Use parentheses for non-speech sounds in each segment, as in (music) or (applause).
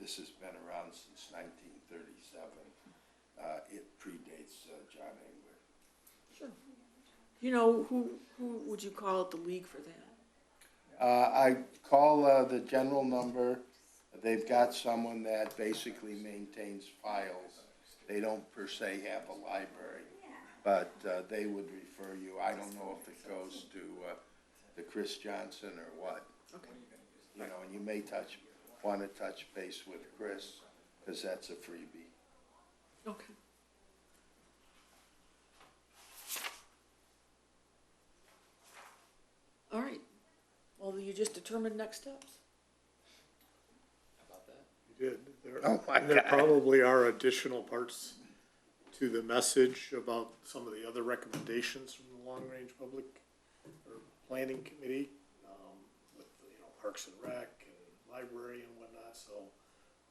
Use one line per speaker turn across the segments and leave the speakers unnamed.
This has been around since nineteen thirty-seven. Uh, it predates, uh, John Engler.
You know, who, who would you call at the league for
Uh,
that?
I call, uh, the general number. They've got someone that basically maintains files. They don't per se have a library, but, uh, they would refer you. I don't know if it goes to, uh, to Chris Johnson or what.
Okay.
You know, and you may touch, wanna touch base with Chris, cause that's a freebie.
Okay. All right. Well, you just determined next steps.
about that.
You did. There-
Oh, my
There
God.
probably are additional parts to the message about some of the other recommendations from the Long Range Public or Planning Committee, um, with, you know, Parks and Rec and Library and whatnot, so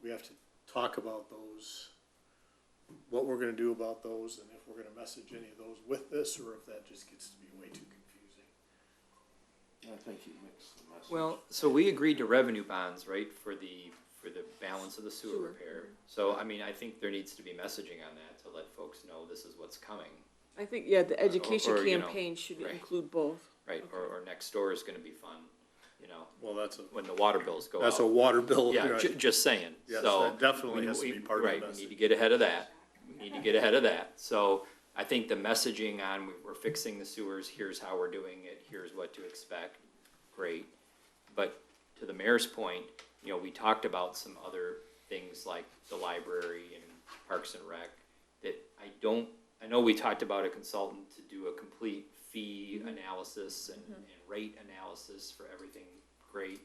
we have to talk about those, what we're gonna do about those, and if we're gonna message any of those with this, or if that just gets to be way too confusing.
I think you mixed the message.
Well, so we agreed to revenue bonds, right, for the, for the balance of the sewer
Sewer.
repair. So, I mean, I think there needs to be messaging on that to let folks know this is what's coming,
I think, yeah, the education
or, you know,
campaign should
right.
include both.
right? Or, or next door is gonna be fun, you know,
Well, that's a,
when the water bills go up.
that's a water bill. (laughs)
Yeah,
right.
ju- just saying,
Yes,
so.
that definitely
we-
has to
we-
be part of the
Right, we need to
message.
get ahead of that, we need to get ahead of that, so I think the messaging on, we- we're fixing the sewers, here's how we're doing it, here's what to expect, great. But to the mayor's point, you know, we talked about some other things like the library and Parks and Rec, that I don't, I know we talked about a consultant to do a complete fee analysis and, and rate analysis for everything, great.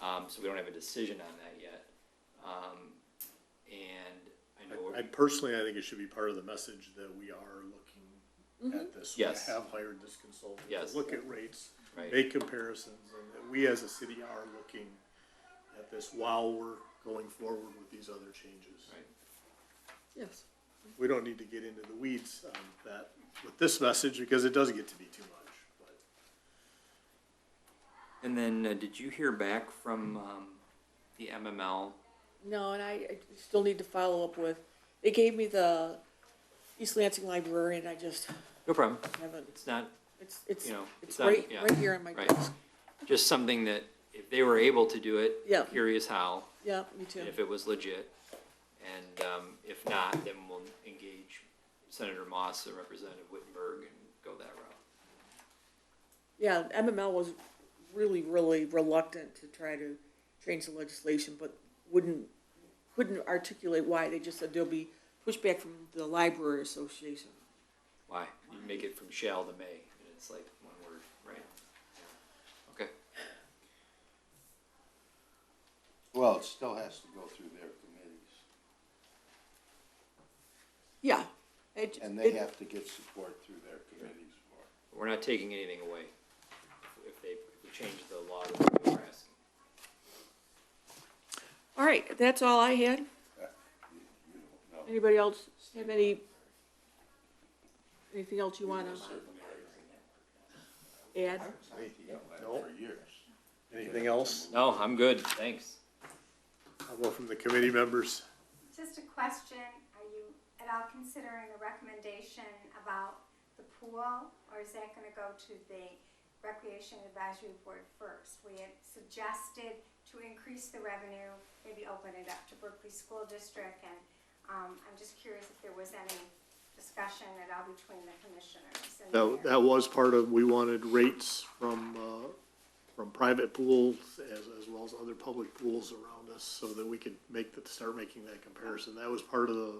Um, so we don't have a decision on that yet. Um, and I know,
I I personally, I think it should be part of the message that we are looking at this. We
Yes.
have hired this consultant
Yes.
to look at rates,
right,
make comparisons, and that we as a city are looking at this while we're going forward with these other changes.
right,
Yes.
We don't need to get into the weeds on that with this message because it does get to be too much, but.
and then, uh, did you hear back from, um, the MML?
No, and I, I still need to follow up with, they gave me the East Lansing Library and I just
No problem,
haven't,
it's not,
it's, it's,
You know,
it's
it's not-
right,
yeah,
right here on my
right.
desk.
just something that if they were able to do it,
Yeah.
here is how,
Yeah, me too.
and if it was legit. And, um, if not, then we'll engage Senator Moss and Representative Wittenberg and go that route.
Yeah, MML was really, really reluctant to try to change the legislation, but wouldn't, couldn't articulate why. They just said there'll be pushback from the library association.
Why? You make it from shall to may, and it's like one word, right? Okay,
Well, it still has to go through their committees,
Yeah. it-
and they
it-
have to get support through their committees for it.
we're not taking anything away if they if we change the law to what we're asking.
All right, that's all I had.
You- You don't know.
Anybody else have any, anything else you want to add?
I was on the E
No.
for years.
Anything else?
No, I'm good, thanks.
I'll go from the committee members.
Just a question, are you at all considering a recommendation about the pool? Or is that gonna go to the Recreation Advisory Board first? We had suggested to increase the revenue, maybe open it up to Berkeley School District. And um, I'm just curious if there was any discussion at all between the commissioners and the
That,
mayor.
that was part of, we wanted rates from, uh, from private pools as, as well as other public pools around us so that we could make, that start making that comparison. That was part of the,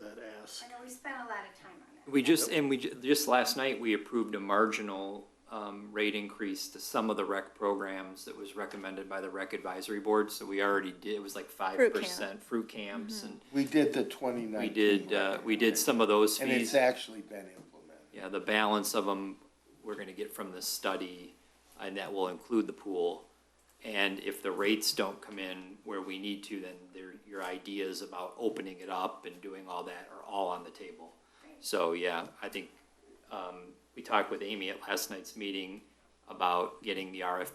that ask.
I know we spent a lot of time on it.
We just, and we, ju- just last night, we approved a marginal um, rate increase to some of the rec programs that was recommended by the rec advisory board, so we already did, it was like five percent. Fruit camps, and
We did the twenty
we
nineteen.
did, uh, we did some of those fees.
And it's actually been implemented.
Yeah, the balance of them, we're gonna get from this study, and that will include the pool. And if the rates don't come in where we need to, then there, your ideas about opening it up and doing all that are all on the table. So, yeah, I think, um, we talked with Amy at last night's meeting about getting the RFP